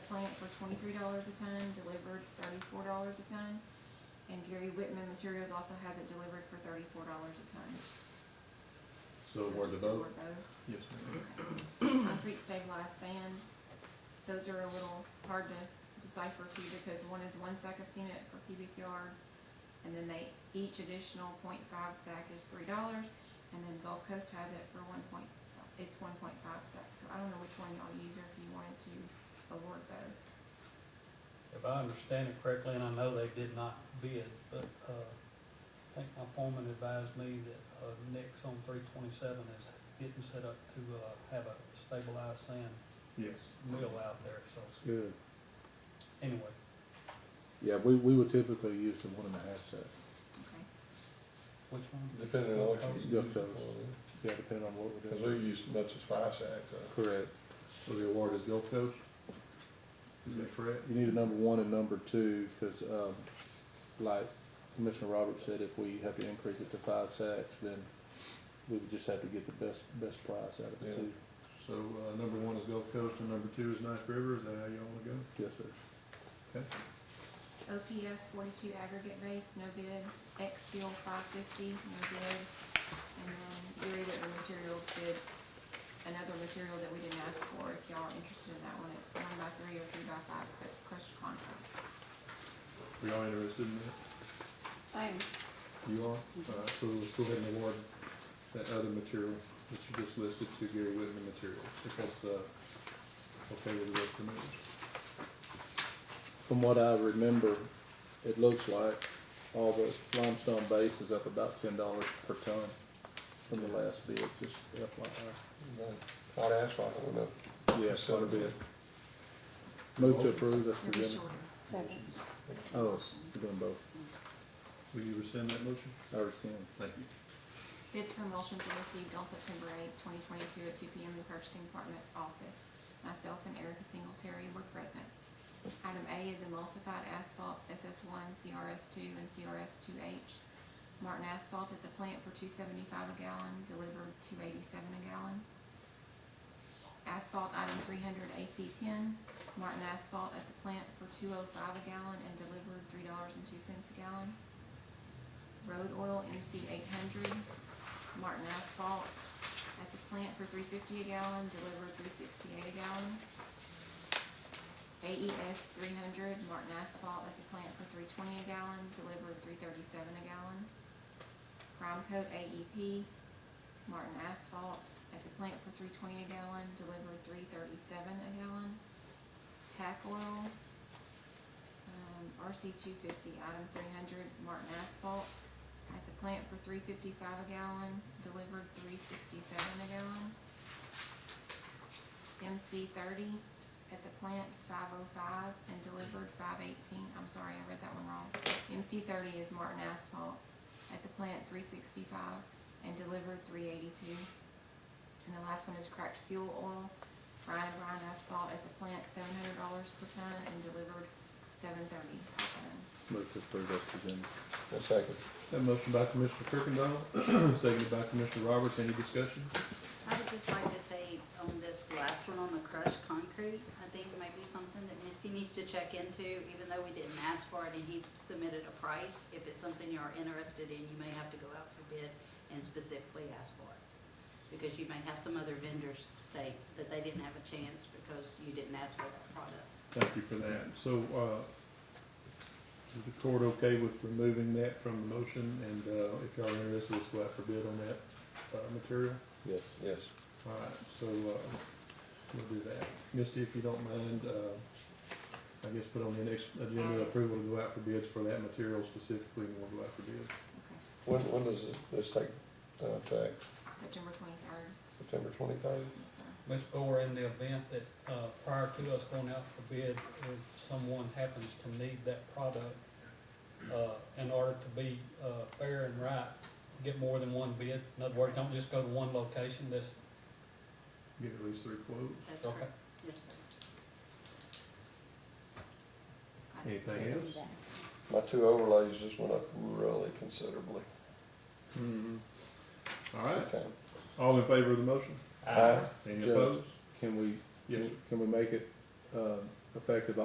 twenty-three dollars a ton, delivered thirty-four dollars a ton. And Gary Whitman Materials also has it delivered for thirty-four dollars a ton. So where to just award vote? both. Yes, ma'am. Concrete stabilized sand, those are a little hard to decipher too, because one is one sack of cement for cubic yard, and then they, each additional point five sack is three dollars, and then Gulf Coast has it for one point, it's one point five sack, so I don't know which one y'all use, or if you wanted to award both. If I understand it correctly, and I know they did not bid, but, uh, I think my foreman advised me that, uh, Nick's on three twenty-seven is getting set up to, uh, have a stabilized sand Yes. mill out there, so, Good. anyway. Yeah, we, we would typically use the one and a half set, Okay, Which one? Depending on what you Gulf use. Coast. yeah, depending on what we're Cause we doing. use as much as five sacks, uh, Correct. So the award is Gulf Coast? Is that correct? You need a number one and number two, because, um, like Commissioner Roberts said, if we have to increase it to five sacks, then we would just have to get the best, best price out of the Yeah. two. So, uh, number one is Gulf Coast and number two is Knife River, is that how y'all wanna go? Yes, sir. OPF forty-two aggregate base, no bid, X seal five fifty, no bid, and then Gary Whitman Materials bid another material that we didn't ask for, if y'all are interested in that one, it's one by three or three by five, but crushed concrete. Were y'all interested in that? I am, You are? Alright, so let's go ahead and award that other material that you just listed to Gary Whitman Materials, if that's, uh, okay with the rest of the members. From what I remember, it looks like all the limestone base is up about ten dollars per ton from the last bid, just FYI. hot asphalt, I don't know. Yeah, quite a bit. Move to approve, that's It'll be presented. shorter. second. Oh, we're doing both. Will you rescind that motion? I rescind. Thank you. Bids for emulsions were received on September eighth, twenty twenty-two at two P M in the purchasing department office. Myself and Erica Singletary were present. Item A is emulsified asphalt SS one, CRS two, and CRS two H. Martin Asphalt at the plant for two seventy-five a gallon, delivered two eighty-seven a gallon. Asphalt item three hundred AC ten, Martin Asphalt at the plant for two oh five a gallon and delivered three dollars and two cents a gallon. Road oil MC eight hundred, Martin Asphalt at the plant for three fifty a gallon, delivered three sixty-eight a gallon. AES three hundred, Martin Asphalt at the plant for three twenty a gallon, delivered three thirty-seven a gallon. Prime Coat AEP, Martin Asphalt at the plant for three twenty a gallon, delivered three thirty-seven a gallon. Tac Oil, um, RC two fifty, item three hundred, Martin Asphalt, at the plant for three fifty-five a gallon, delivered three sixty-seven a gallon. MC thirty, at the plant five oh five and delivered five eighteen, I'm sorry, I read that one wrong. MC thirty is Martin Asphalt, at the plant three sixty-five and delivered three eighty-two. And the last one is cracked fuel oil, Ryan and Brian Asphalt, at the plant seven hundred dollars per ton and delivered seven thirty per ton. Move to approve, that's presented. A second. That motion by Commissioner Kirkendall, seconded by Commissioner Roberts, any discussion? I would just like to say on this last one, on the crushed concrete, I think it might be something that Misty needs to check into, even though we didn't ask for it and he submitted a price. If it's something you're interested in, you may have to go out for bid and specifically ask for it. Because you may have some other vendors state that they didn't have a chance because you didn't ask for that product. Thank you for that. So, uh, is the court okay with removing that from the motion? And, uh, if y'all are interested, let's go out for bid on that, uh, material. Yes. Yes. All right, so, uh, we'll do that. Misty, if you don't mind, uh, I guess put on the next agenda approval to go out for bids for that material specifically, and we'll go out for bids. Okay, When, when does it- this take, uh, effect? September twenty-third, September twenty-third? yes, sir. Ms. Boer, in the event that, uh, prior to us going out for bid, if someone happens to need that product, uh, in order to be, uh, fair and right, get more than one bid. In other words, don't just go to one location, that's, Get at least three quotes. That's okay. correct. Yes, sir. Got it. Anything else? Yes, sir. My two overlays just went up really considerably. Hmm. All right, Okay. all in favor of the motion? Aye. Any Uh, Judge. opposed? Can we, Yes, sir. can we make it, um, effective